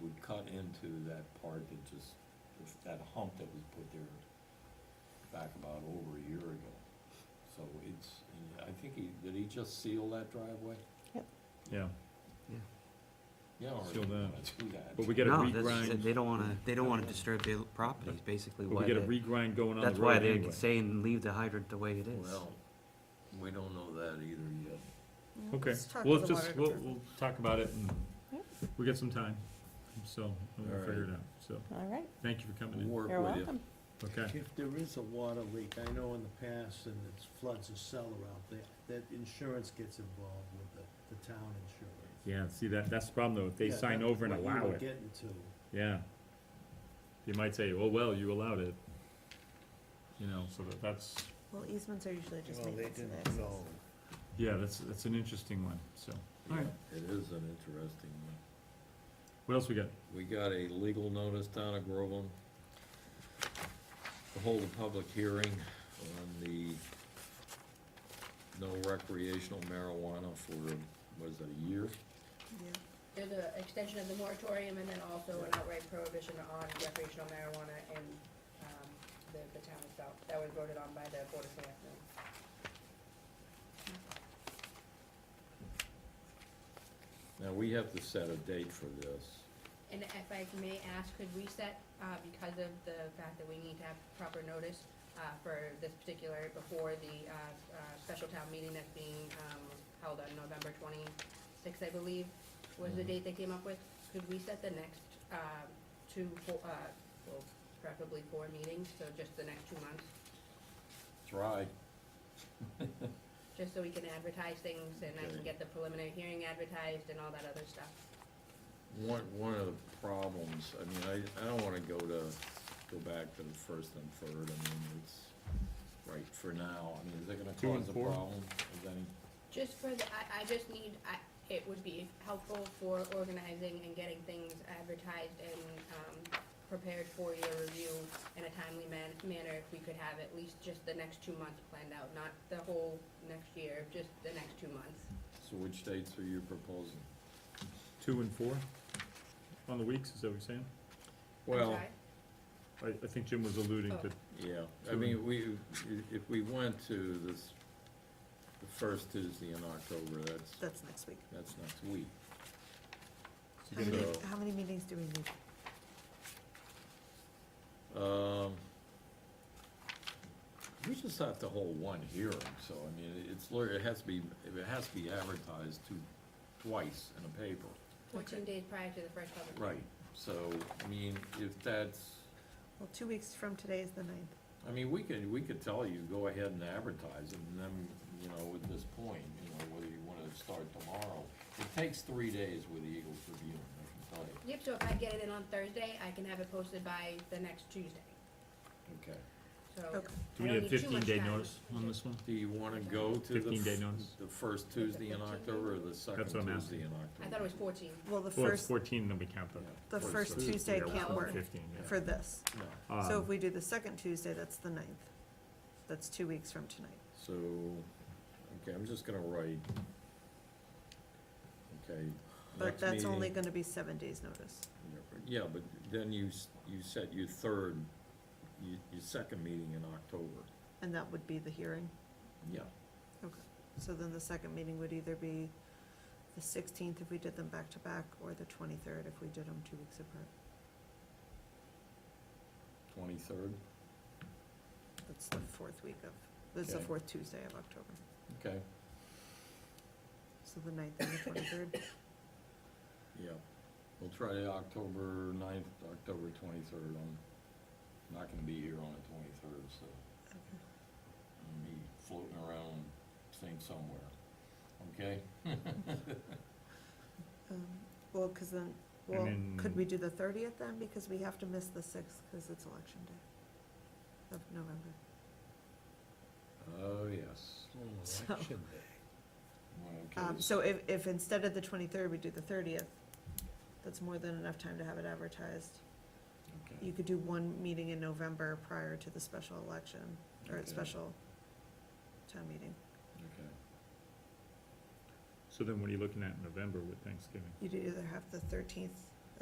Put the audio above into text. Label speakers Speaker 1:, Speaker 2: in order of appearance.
Speaker 1: would cut into that part that just, that hump that was put there back about over a year ago. So it's, and I think he, did he just seal that driveway?
Speaker 2: yeah,
Speaker 1: Yeah, or
Speaker 2: Seal
Speaker 1: he
Speaker 2: that.
Speaker 1: wanna do that.
Speaker 2: but we get a
Speaker 3: No, that's,
Speaker 2: regrind,
Speaker 3: they don't wanna, they don't wanna disturb their property, is basically
Speaker 2: but we
Speaker 3: why
Speaker 2: get a
Speaker 3: they,
Speaker 2: regrind going on
Speaker 3: that's
Speaker 2: the
Speaker 3: why
Speaker 2: road
Speaker 3: they're
Speaker 2: anyway.
Speaker 3: saying leave the hydrant the way it is.
Speaker 1: Well, we don't know that either yet.
Speaker 2: Okay,
Speaker 4: Mm-hmm. Let's talk to
Speaker 2: we'll
Speaker 4: the
Speaker 2: just,
Speaker 4: water
Speaker 2: we'll,
Speaker 4: department.
Speaker 2: we'll talk about it and
Speaker 5: Yep.
Speaker 2: we get some time, so we'll
Speaker 1: All
Speaker 2: figure
Speaker 1: right.
Speaker 2: it out, so,
Speaker 5: All right,
Speaker 2: thank you for coming
Speaker 1: We'll
Speaker 2: in,
Speaker 1: work
Speaker 5: you're
Speaker 1: with you.
Speaker 5: welcome.
Speaker 2: okay?
Speaker 6: If there is a water leak, I know in the past, and it's floods a cellar out there, that insurance gets involved with the, the town insurance.
Speaker 2: Yeah, see, that, that's the problem though, if they
Speaker 6: Yeah,
Speaker 2: sign
Speaker 6: that's
Speaker 2: over and
Speaker 6: what you
Speaker 2: allow
Speaker 6: were
Speaker 2: it,
Speaker 6: Getting to.
Speaker 2: yeah. You might say, oh, well, you allowed it, you know, so that, that's,
Speaker 4: Well, easements are usually just
Speaker 6: Well, they
Speaker 4: maintenance and
Speaker 6: didn't
Speaker 4: access.
Speaker 6: know.
Speaker 2: yeah, that's, that's an interesting one, so, alright,
Speaker 1: Yeah, It is an interesting one.
Speaker 2: what else we got?
Speaker 1: We got a legal notice down at Groveland to hold a public hearing on the no recreational marijuana for, was it a year?
Speaker 4: Yeah.
Speaker 7: There's an extension of the moratorium and then also an outright prohibition on recreational marijuana in, um, the, the town itself. That was voted on by the Board of Selectmen.
Speaker 1: Now, we have to set a date for this.
Speaker 7: And if I may ask, could we set, uh, because of the fact that we need to have proper notice, uh, for this particular, before the, uh, uh, special town meeting that's being, um, held on November twenty-sixth, I believe, was the
Speaker 1: Mhm.
Speaker 7: date they came up with? Could we set the next, uh, two, fo- uh, well, preferably four meetings, so just the next two months?
Speaker 1: Try.
Speaker 7: just so we can advertise things and I
Speaker 1: Okay.
Speaker 7: can get the preliminary hearing advertised and all that other stuff.
Speaker 1: One, one of the problems, I mean, I, I don't wanna go to, go back to the first and third, I mean, it's, right, for now, I mean, is it gonna
Speaker 2: Two and
Speaker 1: cause a
Speaker 2: four?
Speaker 1: problem? Is any,
Speaker 7: Just for the, I, I just need, I, it would be helpful for organizing and getting things advertised and, um, prepared for your review in a timely man, manner if we could have at least just the next two months planned out, not the whole next year, just the next two months.
Speaker 1: so which dates are you proposing?
Speaker 2: Two and four on the weeks, is that what you're saying?
Speaker 7: I'm
Speaker 1: Well,
Speaker 7: sorry?
Speaker 2: I, I think Jim was
Speaker 4: Oh,
Speaker 2: alluding to,
Speaker 1: Yeah, I
Speaker 2: Two
Speaker 1: mean, we, i- if we went to this, the first Tuesday in October, that's,
Speaker 4: That's next week.
Speaker 1: that's next week.
Speaker 4: How many,
Speaker 1: So-
Speaker 4: how many meetings do we need?
Speaker 1: Um, we just have to hold one hearing, so, I mean, it's, lit- it has to be, it has to be advertised two, twice in a paper.
Speaker 7: Fourteen days prior to the first public hearing.
Speaker 1: Right. So, I mean, if that's,
Speaker 4: Well, two weeks from today is the ninth.
Speaker 1: I mean, we could, we could tell you, go ahead and advertise, it, and then, you know, at this point, you know, whether you wanna start tomorrow. It takes three days with the Eagles Tribune, I can tell you.
Speaker 7: Yep, so if I get it in on Thursday, I can have it posted by the next Tuesday,
Speaker 1: Okay.
Speaker 7: so.
Speaker 5: Oh,
Speaker 4: Okay.
Speaker 2: do we
Speaker 7: I
Speaker 2: need
Speaker 7: don't
Speaker 2: a
Speaker 7: too
Speaker 2: fifteen
Speaker 7: much
Speaker 2: day
Speaker 7: time.
Speaker 2: notice on this one?
Speaker 1: Do you wanna go to the?
Speaker 2: 15 day
Speaker 1: f-
Speaker 2: notice.
Speaker 1: The first Tuesday in
Speaker 7: 15 day?
Speaker 1: October or the second
Speaker 2: what I'm
Speaker 1: Tuesday in October?
Speaker 7: I thought it was fourteen.
Speaker 4: Well, the
Speaker 2: Well, it's
Speaker 4: first,
Speaker 2: fourteen, then we count the.
Speaker 1: Yeah.
Speaker 4: the
Speaker 1: Or
Speaker 4: first
Speaker 1: Tuesday.
Speaker 4: Tuesday
Speaker 2: Yeah,
Speaker 4: can't work
Speaker 2: Fifteen, yeah.
Speaker 4: for this.
Speaker 1: No,
Speaker 4: So if
Speaker 2: Um,
Speaker 4: we do the second Tuesday, that's the ninth. That's two weeks from tonight.
Speaker 1: so, okay, I'm just gonna write. Okay.
Speaker 4: But
Speaker 1: next
Speaker 4: that's only
Speaker 1: meeting-
Speaker 4: gonna be seven days' notice.
Speaker 1: Yeah, but then you, s- you set your third, your, your second meeting in October.
Speaker 4: And that would be the hearing.
Speaker 1: Yeah,
Speaker 4: So then the second meeting would either be the sixteenth if we did them back to back, or the twenty-third if we did them two weeks apart.
Speaker 1: twenty-third,
Speaker 4: That's the fourth week of, that's the
Speaker 1: Okay.
Speaker 4: fourth Tuesday of October.
Speaker 1: okay,
Speaker 4: So the ninth and the twenty-third.
Speaker 1: yeah. We'll try the October ninth, October twenty-third, I'm not gonna be here on the twenty-third, so. and me floating around St. Somewhere, okay?
Speaker 4: Um, Well, because then, well, could
Speaker 2: then-
Speaker 4: we do the thirtieth then? Because we have to miss the sixth because it's election day of November.
Speaker 1: Oh, yes.
Speaker 4: So- election
Speaker 1: Okay,
Speaker 4: Um, So if, if instead of the twenty-third, we do the thirtieth, that's more than enough time to have it advertised.
Speaker 1: okay.
Speaker 4: You could do one meeting in November prior to the special election, or
Speaker 1: Okay.
Speaker 4: special town meeting.
Speaker 1: Okay.
Speaker 2: So then what are you looking at in November with Thanksgiving?
Speaker 4: You'd either have the thirteenth